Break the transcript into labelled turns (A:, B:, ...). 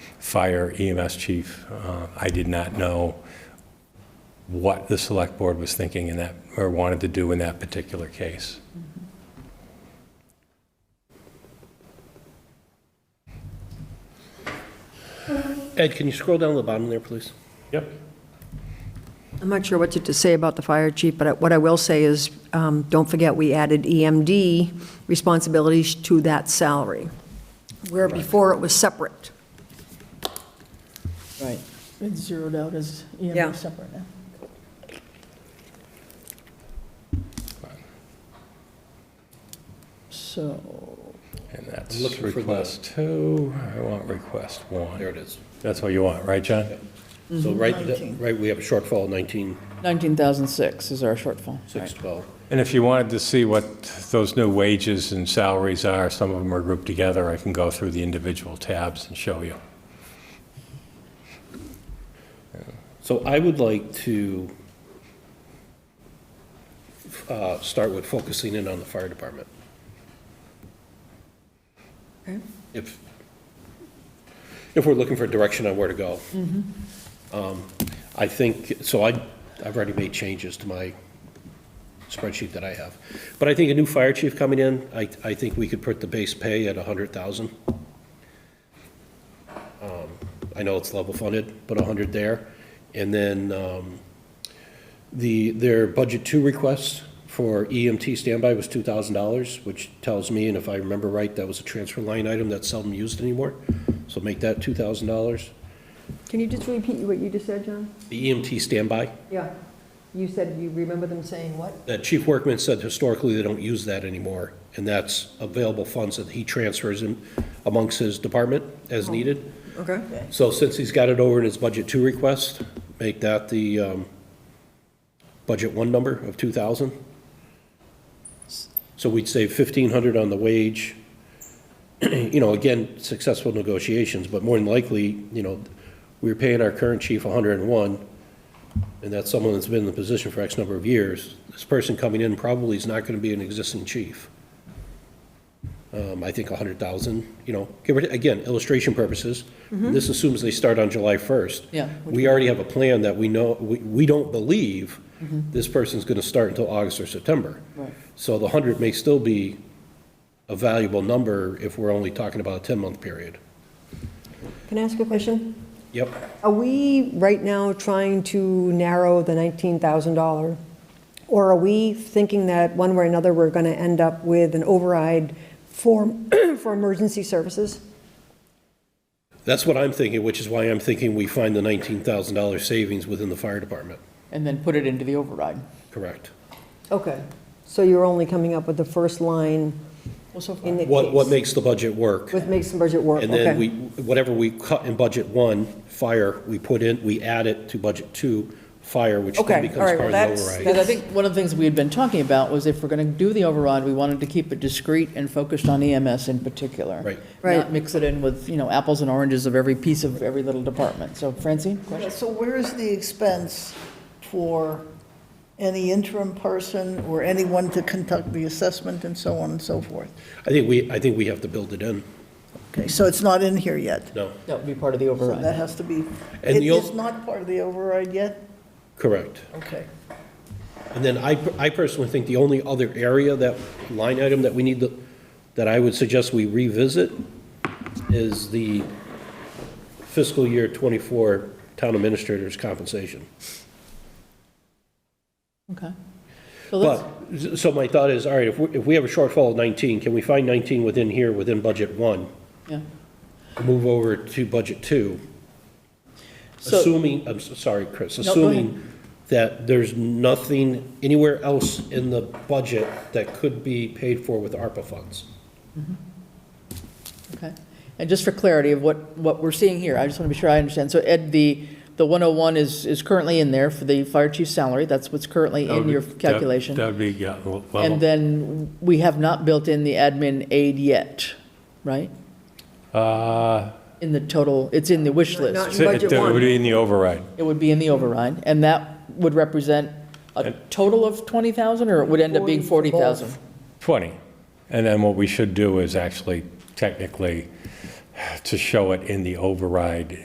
A: fire EMS chief. Uh, I did not know what the select board was thinking in that, or wanted to do in that particular case.
B: Ed, can you scroll down to the bottom there, please?
A: Yep.
C: I'm not sure what to- to say about the fire chief, but what I will say is, um, don't forget, we added EMD responsibilities to that salary, where before it was separate.
D: Right. It's zeroed out as
C: Yeah.
D: EMS separate now. So,
A: And that's
B: I'm looking for the-
A: request two, I want request
B: There
A: one.
B: it is.
A: That's what you want, right, John?
B: So right,
D: Nineteen.
B: right, we have a shortfall of 19,
E: 19,006 is our shortfall.
B: 612.
A: And if you wanted to see what those new wages and salaries are, some of them are grouped together, I can go through the individual tabs and show you.
B: So I would like to uh, start with focusing in on the fire department.
C: Okay.
B: If, if we're looking for direction on where to go. Um, I think, so I, I've already made changes to my spreadsheet that I have. But I think a new fire chief coming in, I, I think we could put the base pay at 100,000. I know it's level funded, but 100 there. And then um, the, their budget two request for EMT standby was $2,000, which tells me, and if I remember right, that was a transfer line item that's seldom used anymore. So make that $2,000.
C: Can you just repeat what you just said, John?
B: The EMT standby,
C: Yeah. You said you remember them saying what?
B: that Chief Workman said historically they don't use that anymore, and that's available funds that he transfers in amongst his department as needed.
C: Oh, Okay.
B: So since he's got it over in his budget two request, make that the um, budget one number of 2,000. So we'd save 1,500 on the wage. You know, again, successful negotiations, but more than likely, you know, we're paying our current chief 101, and that's someone that's been in the position for X number of years. This person coming in probably is not going to be an existing chief. Um, I think 100,000, you know, give or, again, illustration purposes. This assumes they start on July 1st.
E: Yeah.
B: We already have a plan that we know, we, we don't believe
E: Mm-hmm.
B: this person's going to start until August or September.
E: Right.
B: So the 100 may still be a valuable number if we're only talking about a 10-month period.
C: Can I ask a question?
B: Yep.
C: Are we right now trying to narrow the $19,000? Or are we thinking that one way or another, we're going to end up with an override for, for emergency services?
B: That's what I'm thinking, which is why I'm thinking we find the $19,000 savings within the fire department.
E: And then put it into the override.
B: Correct.
C: Okay, so you're only coming up with the first line
E: Well, so far,
C: in the
B: What, what
C: case
B: makes the budget work?
C: With makes the budget work,
B: And then we,
C: okay.
B: whatever we cut in budget one, fire, we put in, we add it to budget two, fire, which
E: Okay,
B: then
E: all
B: becomes part
E: right,
B: of
E: well,
B: the
E: that's-
B: override.
E: Because I think one of the things we had been talking about was if we're going to do the override, we wanted to keep it discrete and focused on EMS in particular.
B: Right.
C: Right.
E: Not mix it in with, you know, apples and oranges of every piece of every little department. So Francine,
D: Yeah,
E: question?
D: so where is the expense for any interim person or anyone to conduct the assessment and so on and so forth?
B: I think we, I think we have to build it in,
D: Okay, so it's not in here yet.
B: no,
E: That would be part of the
D: So that
E: override.
D: has to be,
B: And
D: it
B: you'll-
D: is not part of the override yet?
B: correct.
D: Okay.
B: And then I, I personally think the only other area that, line item that we need to, that I would suggest we revisit is the fiscal year twenty-four town administrators compensation.
E: Okay. So let's,
B: But, so my thought is, all right, if we, if we have a shortfall of nineteen, can we find nineteen within here, within budget one?
E: yeah.
B: Move over to budget two,
E: So-
B: assuming, I'm s- sorry, Chris,
E: No, go ahead.
B: assuming that there's nothing anywhere else in the budget that could be paid for with ARPA funds.
E: Okay. And just for clarity of what, what we're seeing here, I just want to be sure I understand. So Ed, the, the 101 is, is currently in there for the fire chief's salary. That's what's currently in your calculation.
A: That would be, yeah, level.
E: And then we have not built in the admin aid yet, right?
A: Uh,
E: In the total, it's in the wish
C: Not-
E: list.
A: so It
C: Budget
A: that would
C: one.
A: be in the override.
E: It would be in the override, and that would represent a total of 20,000, or it would end up being 40,000?
A: 20. And then what we should do is actually technically to show it in the override